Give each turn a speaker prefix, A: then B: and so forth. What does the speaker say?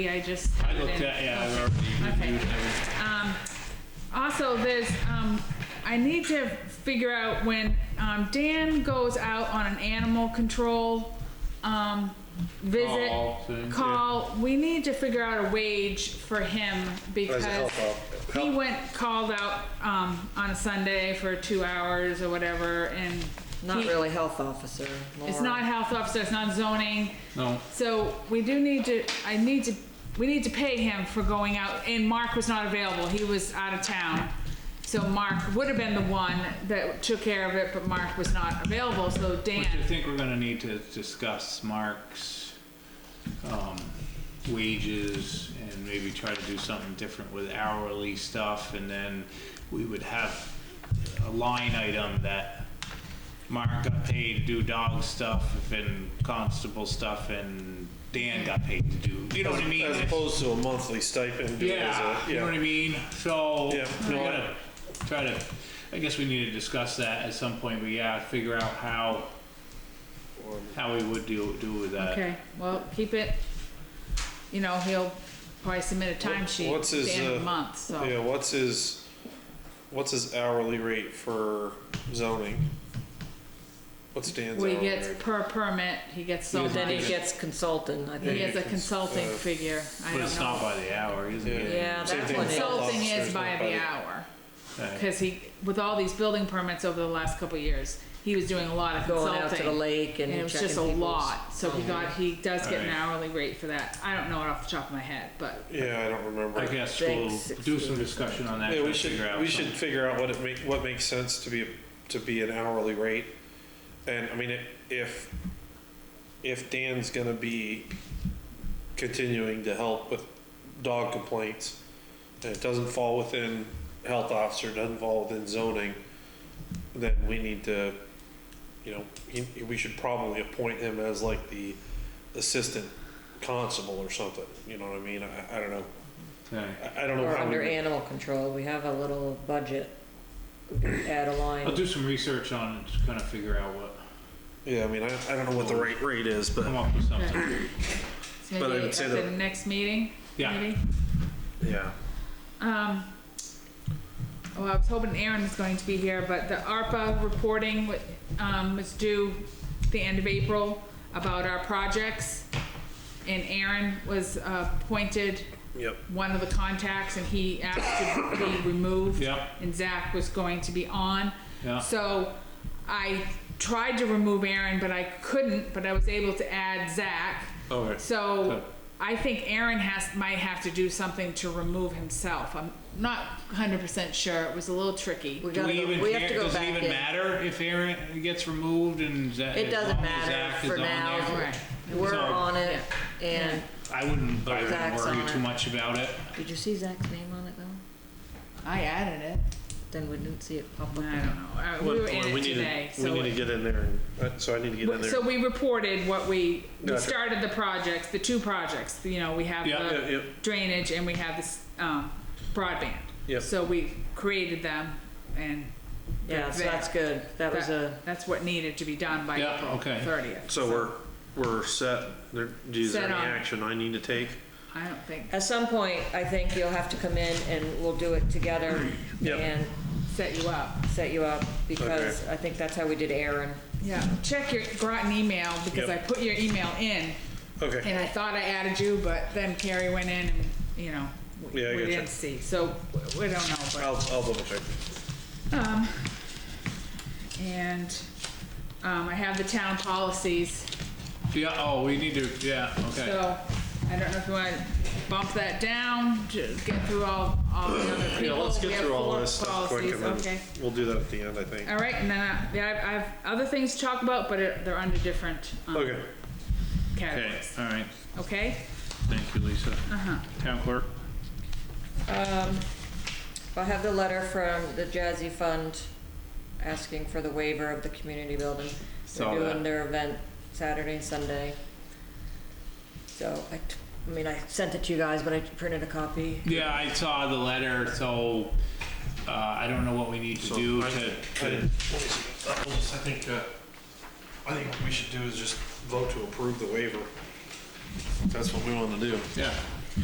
A: I just.
B: I looked at, yeah, I've already
A: Okay.
B: reviewed everything.
A: Um, also, there's, um, I need to figure out when, um, Dan goes out on an animal control, um, visit.
B: Call thing, yeah.
A: Call, we need to figure out a wage for him because
C: help out?
A: he went, called out, um, on a Sunday for two hours or whatever and.
D: Not
A: he-
D: really health officer.
A: It's
D: more-
A: not health officer, it's not zoning.
B: No,
A: So we do need to, I need to, we need to pay him for going out, and Mark was not available, he was out of town. So Mark would have been the one that took care of it, but Mark was not available, so Dan,
B: which I think we're gonna need to discuss Mark's, um, wages and maybe try to do something different with hourly stuff and then we would have a line item that Mark got paid to do dog stuff and constable stuff and Dan got paid to do, you know what I mean?
C: As
B: It's-
C: opposed to a monthly stipend. uh, do it as a-
B: Yeah, you know what I mean? So,
C: Yeah.
B: we gotta try to, I guess we need to discuss that at some point, but yeah, figure out how, how we would do, do with that.
A: okay, well, keep it, you know, he'll probably submit a timesheet at
C: what's his,
A: the end of
C: uh,
A: the month, so.
C: Yeah, what's his, what's his hourly rate for zoning? What's Dan's
A: What
C: hourly
A: he gets
C: rate?
A: per permit, he gets so
D: Then he
A: much,
D: gets consultant, I
A: he
D: think.
A: gets a consulting figure, I
B: But
A: don't
B: it's not
A: know.
B: by the hour, is it?
D: Yeah,
C: Same
D: that's
C: thing
D: what
C: with
D: it
C: health
A: Consulting
C: officers,
A: is
C: not
A: by the hour.
B: Okay.
A: Because he, with all these building permits over the last couple of years, he was doing a lot of
D: Going
A: consulting.
D: out to the lake and
A: And it was
D: checking
A: just a
D: people's-
A: lot, so he got, he does get an
B: Alright.
A: hourly rate for that. I don't know it off the top of my head, but
C: Yeah, I don't
B: I
C: remember.
B: guess we'll
D: Six,
B: do some discussion on that,
C: Yeah,
B: try to
C: we
B: figure
C: should,
B: out
C: we should
B: something.
C: figure out what it make, what makes sense to be, a- to be an hourly rate. And I mean, i- if, if Dan's gonna be continuing to help with dog complaints, and it doesn't fall within health officer, doesn't fall within zoning, then we need to, you know, he, we should probably appoint him as like the assistant constable or something, you know what I mean? I, I don't know.
B: Okay.
C: I, I don't know
D: Or
C: how we.
D: under animal control, we have a little budget, we could add a
B: I'll
D: line.
B: Oh, do some research on it, just kind of figure out what,
C: Yeah, I mean, I, I don't know what the right rate is, but
B: come up with something.
A: so
C: But I
A: maybe
C: would
A: at
C: say
A: the
C: that-
A: next meeting,
B: Yeah.
A: maybe?
C: yeah.
A: Um, well, I was hoping Aaron was going to be here, but the ARPA reporting wa- um, was due the end of April about our projects. And Aaron was uh, appointed
C: Yep.
A: one of the contacts and he asked to be removed.
B: Yeah.
A: And Zach was going to be on.
B: Yeah.
A: So I tried to remove Aaron, but I couldn't, but I was able to add Zach.
B: Okay. Good.
A: So I think Aaron has, might have to do something to remove himself. I'm not hundred percent sure. It was a little tricky.
D: We
B: Do
D: gotta
B: we even
D: go, we have
B: care,
D: to go
B: does
D: back
B: it even
D: in.
B: matter if Aaron gets removed and Zach?
D: It
B: as
D: doesn't
B: long as
D: matter
B: Zach is
D: for
B: on
D: now.
B: there?
A: Right.
D: We're
B: So-
D: on it, and,
B: I wouldn't, I wouldn't
D: Zach's on
B: worry
D: it.
B: too much about it.
D: did you see Zach's name on it though?
A: I added it.
D: Then we didn't see it pop up.
A: I don't know. Uh, We were in it today, so.
C: we need
A: it-
C: to get in there. And, uh, so I need to get in there.
A: So we reported what we, we
C: Gotcha.
A: started the projects, the two projects, you know, we have
B: Yeah,
C: yeah, yeah.
A: the drainage and we have this, um, broadband.
C: Yep.
A: So we created them and.
D: Yeah, so that's good. That was a,
A: that- That's what needed to be done by
B: Yeah,
A: April
B: okay.
A: thirtieth.
C: so we're we're set. There, is there
A: Set
C: any
A: on.
C: action I need to take?
A: I don't think,
D: at some point, I think you'll have to come in and we'll do it together
C: Yep.
D: and
A: set you up.
D: set you up, because I think that's how we did Aaron.
A: Yeah, check your Groton email because I
C: Yep.
A: put your email in
C: Okay.
A: and I thought I added you, but then Carrie went in and, you know, we
C: Yeah, I
A: we
C: gotcha.
A: didn't see. So w- we don't know, but.
C: I'll I'll double check.
A: Um, and, um, I have the town policies,
B: Yeah, oh, we need to, yeah, okay.
A: so I don't know if you wanna bump that down, to get through all, all the other people.
C: Yeah, let's
A: We
C: get
A: have
C: through all
A: four
C: this stuff quick,
A: policies,
C: and then
A: Okay,
C: we'll do that at the end, I think.
A: all right, and then I, yeah, I I have other things to talk about, but it- they're under different, um,
C: Okay.
B: Okay,
A: categories,
B: all right,
A: okay?
B: thank you, Lisa.
A: Uh-huh.
B: Town clerk?
D: Um, I have the letter from the Jazzy Fund asking for the waiver of the community building.
B: Saw
D: They're
B: that.
D: doing their event Saturday and Sunday. So I, t- I mean, I sent it to you guys, but I printed a copy.
B: Yeah, I saw the letter, so, uh, I don't know what we need to
C: So
B: do
C: I-
B: to,
C: I- let
B: to,
C: me see. I'll just- I think uh, I think what we should do is just vote to approve the waiver. That's what we want to do.
B: yeah,